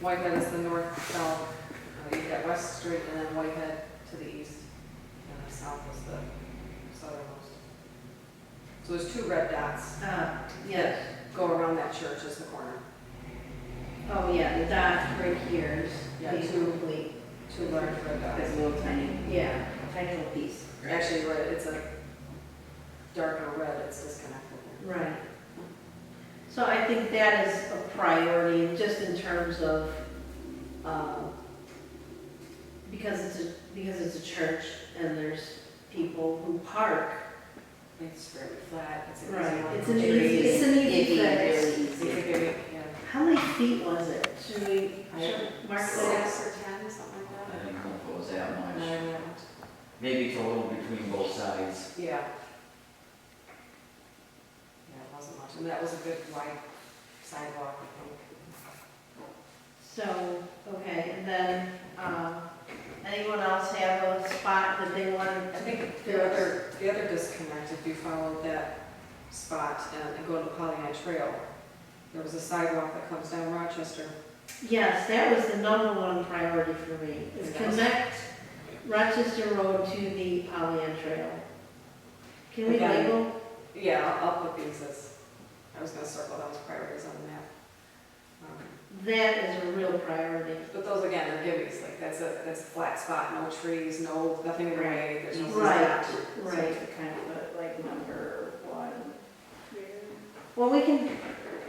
Whitehead is the north, south, uh, you got West Street and then Whitehead to the east. And the south is the southernmost. So there's two red dots Uh, yes, go around that church as the corner. oh yeah, the dot right here is Yeah, presumably Two large red dots. That's a little tiny, Yeah, tiny little piece. Actually, you're right, it's a darker red, it's disconnected. right. So I think that is a priority, just in terms of, um, because it's a, because it's a church and there's people who park. It's fairly flat, it's an easy Right, one. it's an Very easy, it's an easy Itty, fix. really It's a easy. good, yeah. How many feet was it? Should we, I- should mark that? Six or ten, something I like Uh, think it was that that. much, Nine, that much. maybe total between both sides. Yeah. Yeah, it wasn't much, and that was a good wide sidewalk, I think. So, okay, and then, um, anyone else have a spot that they wanted I to think the fix? other, the other disconnect, if you followed that spot um, and and go to Polygon Trail, there was a sidewalk that comes down Rochester. Yes, that was the number one priority for me, is connect Rochester Road to the Pollyant Trail. Can we Okay. label? Yeah, I'll- I'll put these as, I was gonna circle those priorities on the map. Um, That is a real priority. But those again are gimmies, like that's a, that's a flat spot, no trees, no, nothing in the way, there's no. Right, So right. So Kind of put like number one. Well, we can,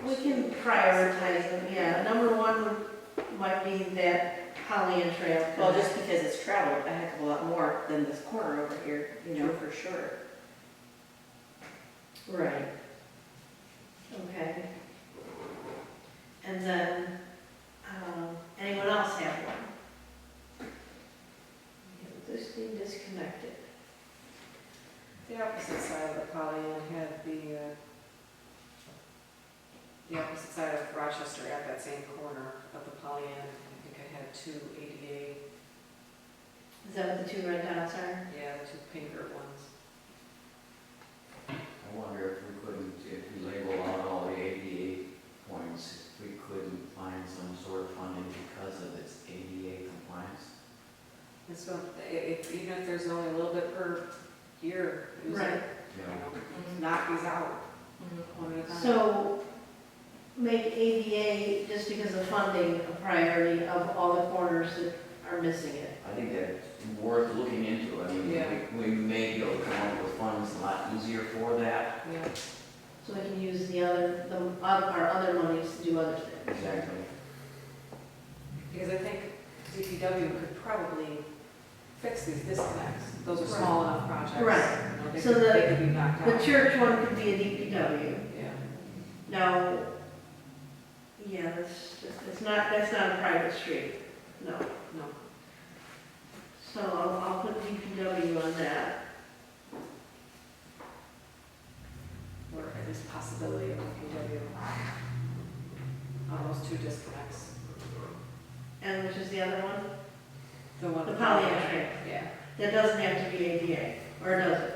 we can prioritize them, yeah. Number one would- might be that Pollyant Trail. Well, just because it's traveled a heck of a lot more than this corner over here, you know, for sure. Right. Okay. And then, um, anyone else have one? This being disconnected. The opposite side of the Pollyant had the, uh, the opposite side of Rochester at that same corner of the Pollyant. I think I had two ADA, Is that what the two red dots are? yeah, two pinker ones. I wonder if we couldn't, if we label out all the ADA points, if we couldn't find some sort of funding because of its ADA compliance? And so, i- if, even if there's only a little bit per year, use it. You know, Knock these out. Mm-hmm. one at a time. So make ADA, just because of funding, a priority of all the corners that are missing it. I think that's worth looking into, I mean, Yeah. we, we may be able to come up with funds a lot easier for that. Yeah, So we can use the other, the, oth- our other monies to do other things. Exactly. because I think DPW could probably fix these disconnects. Those are small enough projects. Right. you know, they So could- They the- could be knocked out. The church one could be a DPW. Yeah. No. Yeah, that's just, it's not, that's not a private street, no. No. So I'll, I'll put DPW on that. or at least possibility of DPW on those two disconnects. And which is the other one? The one. The polyandry. Yeah, That doesn't have to be ADA, or does it?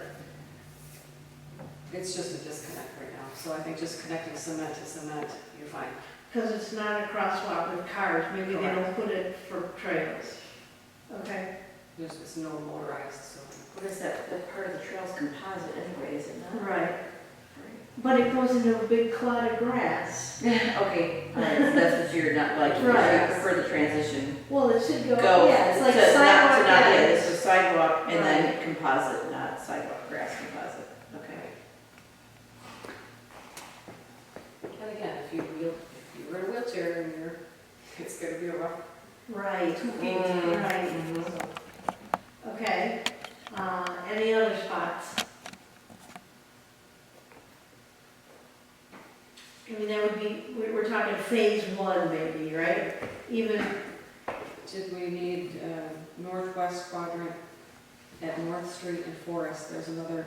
it's just a disconnect right now, so I think just connecting cement to cement, you're fine. Because it's not a crosswalk with cars, maybe they don't put it for trails. Okay. There's, it's no motorized, so. What is that, that part of the trail's composite anyway, is it not? Right, but it goes into a big clod of grass. Okay, all right, so that's what you're not like, you Right. prefer the transition. Well, it should go, Go. yeah, it's like to- not- to sidewalk not- yeah, grass. This is sidewalk and then composite, not sidewalk, grass composite, okay. And again, if you wheel, if you were in a wheelchair and you're, it's gonna be a rough Right, two feet. Mm. right. So, Okay, uh, any other spots? I mean, that would be, we- we're talking phase one maybe, right? Even, Did we need, uh, northwest quadrant at North Street and Forest, there's another,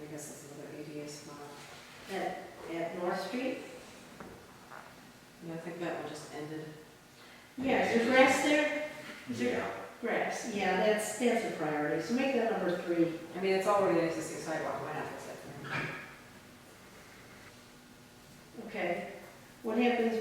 I guess that's another ADA spot. at, at North Street? Yeah, I think that one just ended. Yeah, is there grass there? Yeah. Grass, yeah, that's, that's a priority, so make that number three. I mean, it's already an existing sidewalk, why not fix it? Okay. What happens